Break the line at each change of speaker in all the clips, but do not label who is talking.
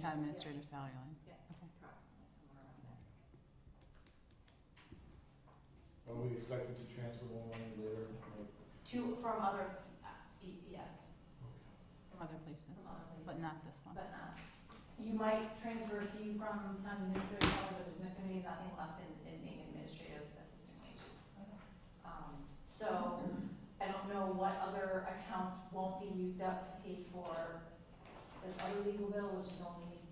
town administrator salary line?
Are we expected to transfer more money later? Like,
Two, from other, uh, y- yes,
From other places,
from other places.
but not this one.
But not, you might transfer a few from town administrative, but there's not gonna be nothing left in, in being administrative assistant wages. Um, so, I don't know what other accounts won't be used up to pay for this other legal bill, which is only in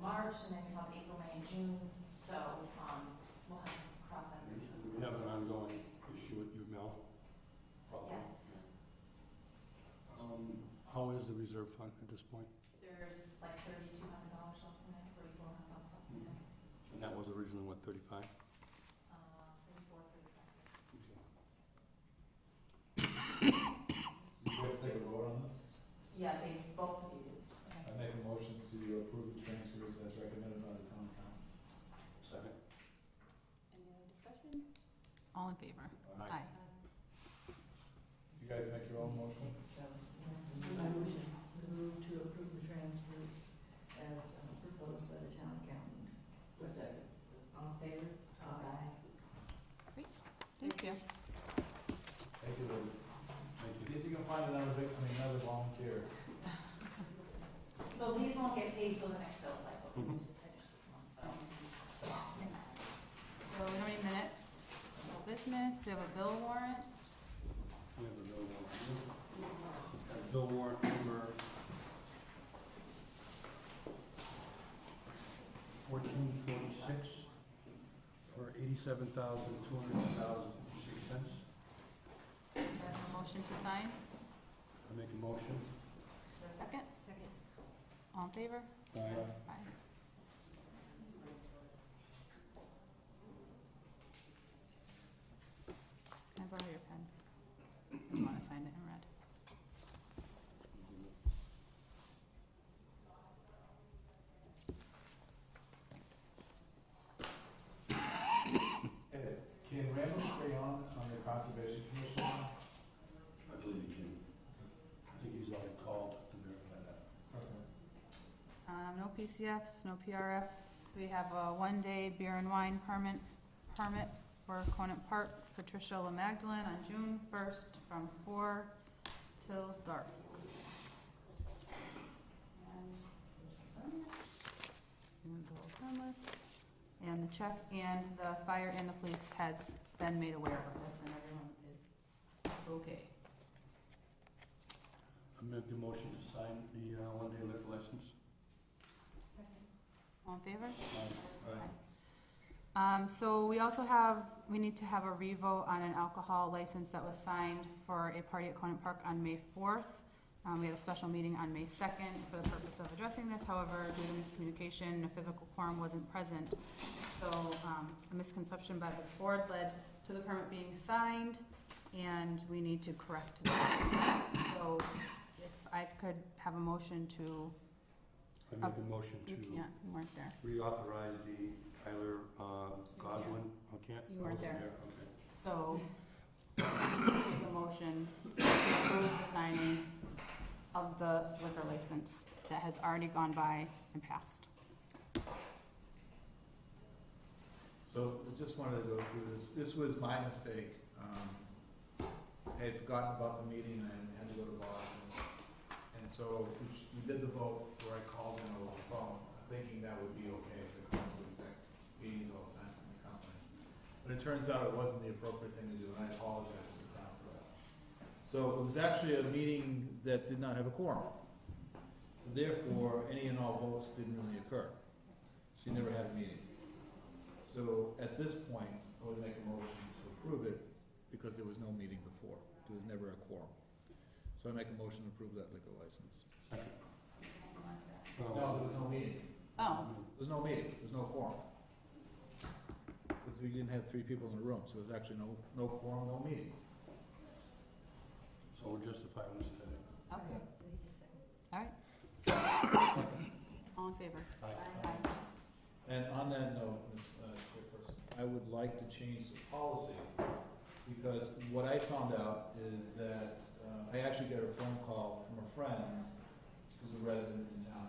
March, and then you have April, May, and June, so, um, we'll have to cross that bridge. when we
We
come
have an
to it.
ongoing issue at UML. problem.
Yes.
Um, How is the reserve fund at this point?
There's like thirty-two hundred dollars left in it, thirty-four hundred dollars left in it,
And that was originally, what, 35?
uh, thirty-four, thirty-five.
Do we have to take a vote on this?
Yeah, they both of you.
I make a motion to approve the transfers as recommended by the town council.
Second?
Any other discussion? All in favor? Aye.
You guys make your own motion?
Move to approve the transfers as uh, proposed by the town accountant. Was second. All in favor? Aye.
Thank you.
Thank you, ladies.
Thank
See
you.
if you can find another victim, another volunteer.
So these won't get paid till the next bill cycle, we
Mhm.
just finished this one, so.
So we don't need minutes, no business, we have a bill warrant.
We have a bill warrant. Uh, Bill warrant number 1446 for $87,200.06.
Do I have a motion to sign?
I make a motion.
Second?
Second.
All in favor?
Aye.
Aye. Can I borrow your pen? I don't want to sign it in red. Thanks.
Ed, can Randall stay on, on the conservation commission?
I believe he can. I think he's already called to verify that.
Okay.
Um, no PCFs, no PRFs. We have a one-day beer and wine permit, permit for Conant Park, Patricia La Magdalene on June first from four till dark. And- And the permits, and the check, and the fire and the police has been made aware of this, and everyone is okay.
I make a motion to sign the uh, one-day liquor license.
All in favor? Um, so we also have, we need to have a revote on an alcohol license that was signed for a party at Conant Park on May fourth. Um, we had a special meeting on May second for the purpose of addressing this, however, due to miscommunication, a physical quorum wasn't present. So, um, a misconception by the board led to the permit being signed, and we need to correct that. So, if I could have a motion to,
I make a motion
you
to
can't, you weren't there.
reauthorize the Tyler uh, Goslin, I can't.
You weren't
I wasn't
there.
okay.
So, make a motion to approve the signing of the liquor license that has already gone by and passed.
So I just wanted to go through this. This was my mistake. Um, I had forgotten about the meeting and had to go to Boston. And so we ch- we did the vote where I called in over the phone, thinking that would be okay as I called to exec meetings all the time from the company. But it turns out it wasn't the appropriate thing to do, and I apologize to the town for that. So it was actually a meeting that did not have a quorum. So therefore, any and all votes didn't really occur. So you never had a meeting. So at this point, I would make a motion to approve it because there was no meeting before. There was never a quorum. So I make a motion to approve that liquor license.
Second.
No, there was no meeting.
Oh,
There was no meeting. There was no quorum. Because we didn't have three people in the room, so there was actually no, no quorum, no meeting.
So we'll justify this today.
okay,
So he just said.
all right. All in favor?
Aye.
Aye.
And on that note, Ms. uh, Chairperson, I would like to change the policy, because what I found out is that, uh, I actually got a phone call from a friend who's a resident in town,